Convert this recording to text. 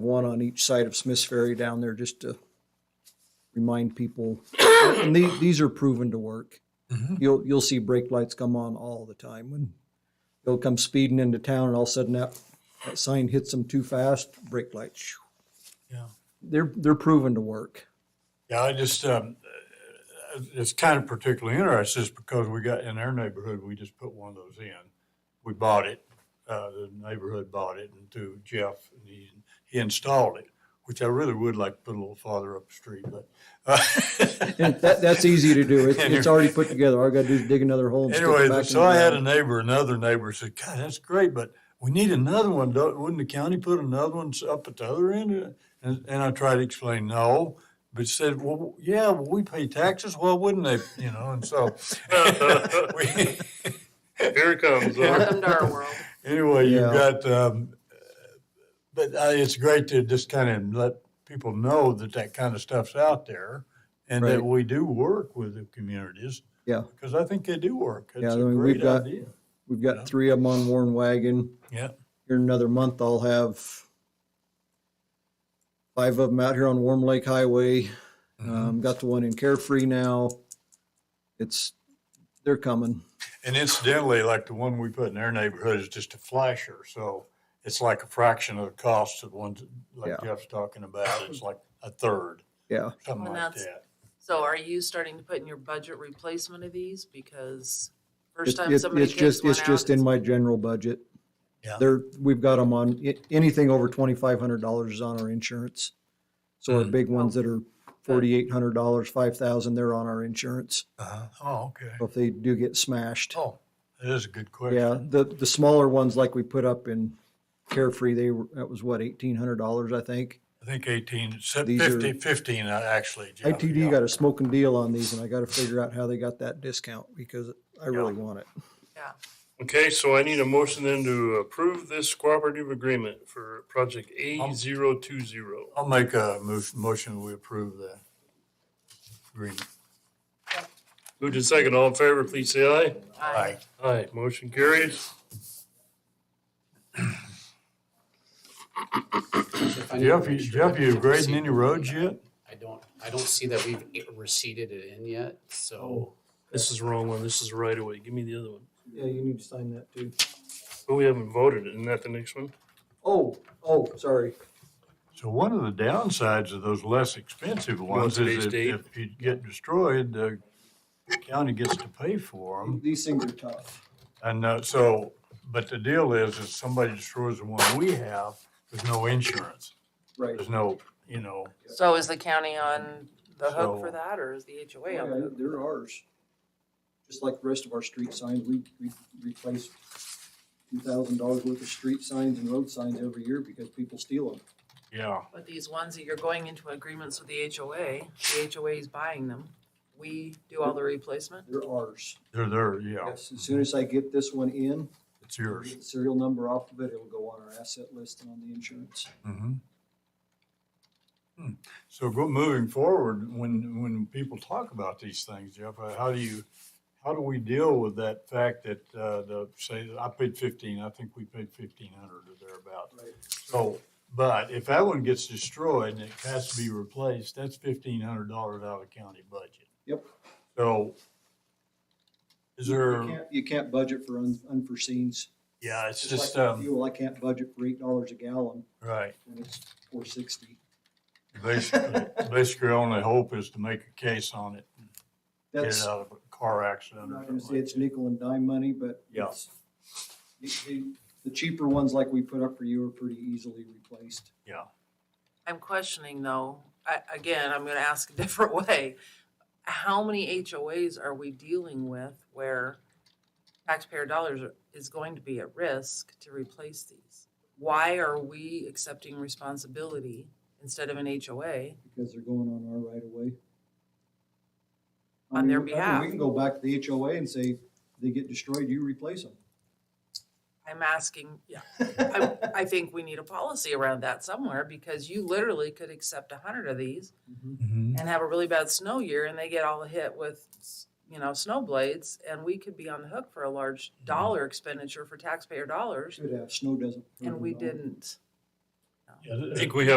one on each side of Smith's Ferry down there just to remind people. And the- these are proven to work. Mhm. You'll, you'll see brake lights come on all the time when they'll come speeding into town and all of a sudden that, that sign hits them too fast, brake light. shoo. Yeah. They're, they're proven to work. Yeah, I just, um, uh, it's kind of particularly interesting is because we got, in our neighborhood, we just put one of those in. We bought it, uh, the neighborhood bought it and through Jeff, and he, he installed it, which I really would like to put a little farther up the street, but. uh, And that, that's easy to do. It's, And it's already put together. All I gotta do is dig another hole and stick it Anyway, back in so the I had a ground. neighbor, another neighbor said, God, that's great, but we need another one. Don't- Wouldn't the county put another one s- up at the other end? And, and I tried to explain, no, but she said, well, yeah, well, we pay taxes. Well, wouldn't they, you know, and so. we- Here it comes. huh? Welcome to our world. Anyway, you've Yeah. got, um, but uh, it's great to just kind of let people know that that kind of stuff's out there and that Right. we do work with the communities. Yeah. Because I think they do work. Yeah, I It's a mean, we've great got- idea. We've got three of them on Warren Wagon. Yeah. here in another month, I'll have five of them out here on Warm Lake Highway. Mm-hmm. Um, got the one in Carefree now. It's, they're coming. And incidentally, like the one we put in our neighborhood is just a flasher, so it's like a fraction of the cost of ones like Yeah. Jeff's talking about. It's like a third, Yeah. something like And that's- that. So are you starting to put in your budget replacement of these? Because It- first time it- somebody It's takes just, one it's just in out, my general budget. Yeah. There, we've got them on, i- anything over twenty-five hundred dollars is on our insurance. So our Mm. big ones Oh. that are forty-eight hundred dollars, five thousand, they're on our insurance. Uh-huh. Oh, okay. So If they do get smashed. Oh, that is a good Yeah, question. the, the smaller ones like we put up in Carefree, they were, that was what, eighteen hundred dollars, I think? I think eighteen, se- These are- fifty, fifteen, uh, actually. Jeff, ITD yeah. got a smoking deal on these and I gotta figure out how they got that discount because I really want it. yeah. Okay, so I need a motion then to approve this cooperative agreement for project A zero two zero. I'll make a mo- motion, we approve the agreement. Moved in second, all in favor, please say aye. I- Aye, motion carries. If I need Jeff, to you, make sure Jeff, that you we've grading any receded- roads yet? I don't, I don't see that we've i- receded it in yet, Oh. so. This is the wrong one, this is the right of way, give me the other one. Yeah, you need to sign that too. But we haven't voted, isn't that the next one? Oh, oh, sorry. So one of the downsides of those less expensive ones today's is if, date? if you get destroyed, the county gets to pay for them. These things are tough. And uh, so, but the deal is, if somebody destroys the one we have, there's no insurance. Right. There's no, you know, So is the county on the hook for So- that or is the HOA on the Yeah, hook? They're ours. Just like the rest of our street signs, we, we replace two thousand dollars worth of street signs and road signs every year because people steal them. yeah, But these ones that you're going into agreements with the HOA, the HOA is buying them. We do all the replacement? They're ours. they're there, yeah, Yes, as soon as I get this one in, it's yours. get the serial number off of it, it'll go on our asset list and on the insurance. Mhm. Hmm. So go, moving forward, when, when people talk about these things, Jeff, uh, how do you, how do we deal with that fact that, uh, the, say, I paid fifteen, I think we paid fifteen hundred or thereabout. Right. So, but if that one gets destroyed and it has to be replaced, that's fifteen hundred dollars out of the county budget. Yep. So is You there, can't, you can't budget for un- unforeseens. yeah, it's It's just, like um, Fuel, I can't budget for eight dollars a gallon right. when it's four sixty. Basically, basically only hope is to make a case on it get it That's, out of a car I'm accident or not gonna something say like it's nickel and dime money, but Yeah. it's- The, the- the cheaper ones like we put up for you are pretty easily replaced. that. Yeah. I'm questioning though, I, again, I'm gonna ask a different way. How many HOAs are we dealing with where taxpayer dollars are- is going to be at risk to replace these? Why are we accepting responsibility instead of an HOA? because they're going on our right of way. I On their mean, I mean, behalf. We can go back to the HOA and say, they get destroyed, you replace them. I'm asking, I, I think we need a policy around that somewhere because you literally could accept a hundred of these and have a really bad snow year and they get all hit with, s- you know, snow blades and we could be on the hook for a large dollar expenditure for taxpayer dollars Should have, snow doesn't. hurt and we them at all. didn't. No. Yeah, I think we have